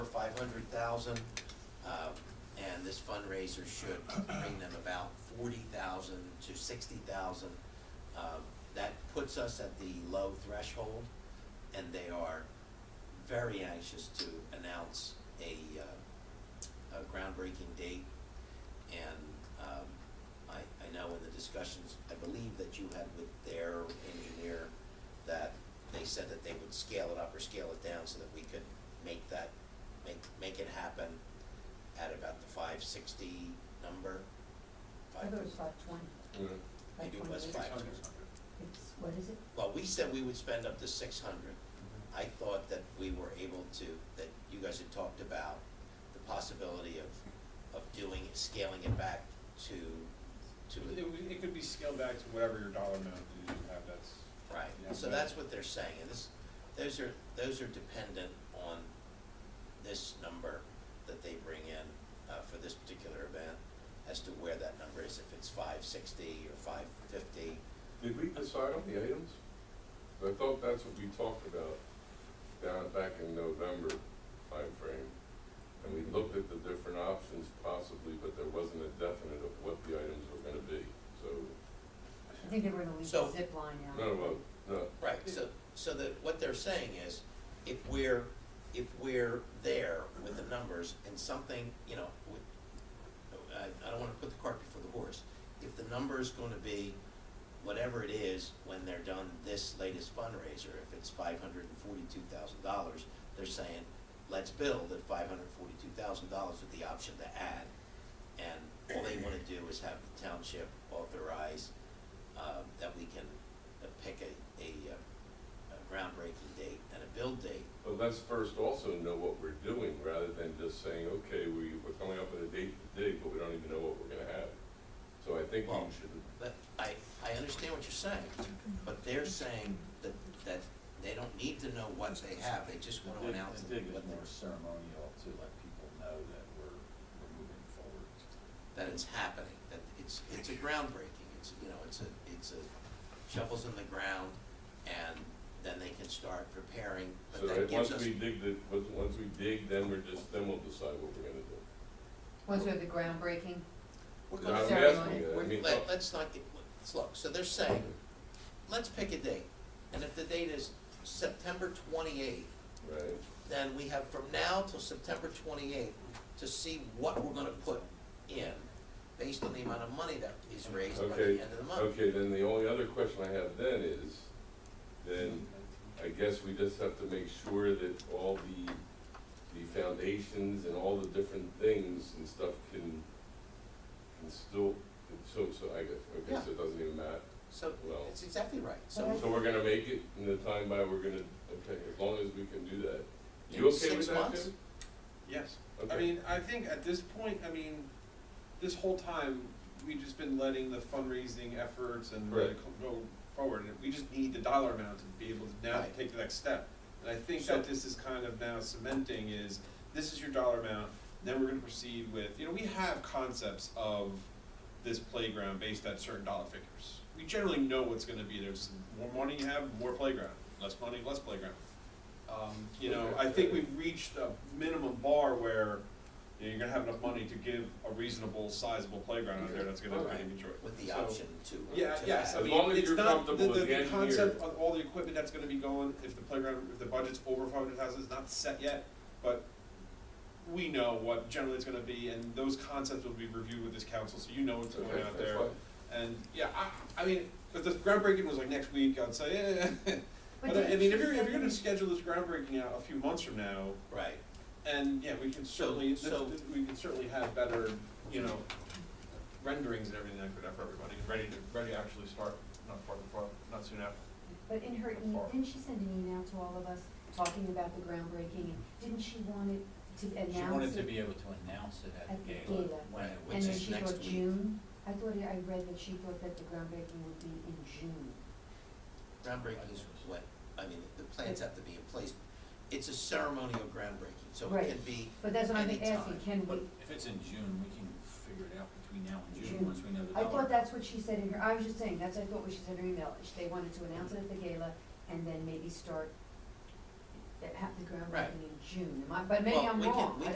hundred thousand. um, And this fundraiser should bring them about forty thousand to sixty thousand. Um, That puts us at the low threshold, and they are very anxious to announce a, uh, a groundbreaking date. And um, I, I know in the discussions, I believe that you had with their engineer, that they said that they would scale it up or scale it down so that we could make that, make, make it happen at about the five sixty number. I Five, thought it was five twenty. I think it was 528. five. It's, what is it? well, we said we would spend up to six hundred. I thought that we were able to, that you guys had talked about the possibility of, of doing, scaling it back to, to. It, would- it could be scaled back to whatever your dollar amount that you have, that's. Right, Yeah. so that's what they're saying, and this, those are, those are dependent on this number that they bring in, uh, for this particular event, as to where that number is, if it's five sixty or five fifty. Did we decide on the items? I thought that's what we talked about down back in November timeframe. And we looked at the different options possibly, but there wasn't a definite of what the items were gonna be. So, I think they were gonna leave the So- zip line out. no, well, no, Right, so, so that, what they're saying is, if we're, if we're there with the numbers and something, you know, we, I, I don't wanna put the cart before the horse. If the number's gonna be whatever it is when they're done this latest fundraiser, if it's five hundred and forty-two thousand dollars, they're saying, let's build at five hundred and forty-two thousand dollars with the option to add. And all they wanna do is have the township authorize, um, that we can uh, pick a, a, uh, a groundbreaking date and a build date. but let's first also know what we're doing rather than just saying, okay, we, we're coming up with a date today, but we don't even know what we're gonna have. So I think we Well- should, But I, I understand what you're saying, but they're saying that, that they don't need to know what they have, they just wanna The dig- announce the what dig is more they're, ceremonial to let people know that we're, we're moving forward. that it's happening, that it's, it's a groundbreaking, it's, you know, it's a, it's a shovels in the ground, and then they can start preparing, so but that that gives once us, we dig the, once, once we dig, then we're just, then we'll decide what we're gonna do. Was there the groundbreaking? we're No, gonna I'm Ceremony. asking you, I We're- mean, oh. Let, us not get, let's look, so they're saying, let's pick a date, and if the date is September twenty-eighth, oh, right, then we have from now till September twenty-eighth to see what we're gonna put in, based on the amount of money that is raised by the Okay, end of the month. okay, then the only other question I have then is, then I guess we just have to make sure that all the, the foundations and all the different things and stuff can, can still, so, so I guess, okay, so it doesn't even matter. So, Well- it's exactly right, But I- so So we're gonna make it in the time by, we're gonna, okay, as long as we can do that. You In okay six with that, months? Jim? Yes, I Okay. mean, I think at this point, I mean, this whole time, we've just been letting the fundraising efforts and let it Right. co- go forward, and we just need the dollar amount to be able to now Right. take the next step. And I think So- that this is kind of now cementing is, this is your dollar amount, then we're gonna proceed with, you know, we have concepts of this playground based at certain dollar figures. We generally know what's gonna be, there's more money you have, more playground, less money, less playground. Um, you know, I think we've reached a minimum bar where you know, you're gonna have enough money to give a reasonable sizable playground out there that's gonna Alright. be enjoyed. with the So- option to, to Yeah, yes, I As add. long mean, as it's you're not, the, comfortable the, with the the end concept here. of all the equipment that's gonna be going, if the playground, if the budget's over five hundred thousand, it's not set yet, but we know what generally it's gonna be, and those concepts will be reviewed with this council, so you know what's Okay, going out that's there. fine. And, yeah, I, I mean, if the groundbreaking was like next week, I'd say, eh, but I I didn't mean, you if you're, if you're gonna say- schedule this groundbreaking out a few months from now, Right, and, yeah, we can certainly, so- th- th- we can certainly have better, you know, renderings and everything like that for everybody, ready to, ready to actually start, not far, far, not soon after. But in her, e- didn't she send an email to all of us talking about the groundbreaking, and didn't she want it to announce it? She wanted to be able to announce it at At the the gala. gala. when it which was- And then is she next thought week. June, I thought, I read that she thought that the groundbreaking would be in June. groundbreaking is what, I mean, the plans have to be in place, it's a ceremonial groundbreaking, so it Right. can be But that's what I'm anytime. asking, can But we, if it's in June, we can figure it out between now and June. June, once we know the I dollar. thought that's what she said in her, I was just saying, that's I thought what she said in her email, She- they wanted to announce it at the gala and then maybe start, have the groundbreaking Right. in June, Am I- but maybe Well, I'm we can- wrong, we I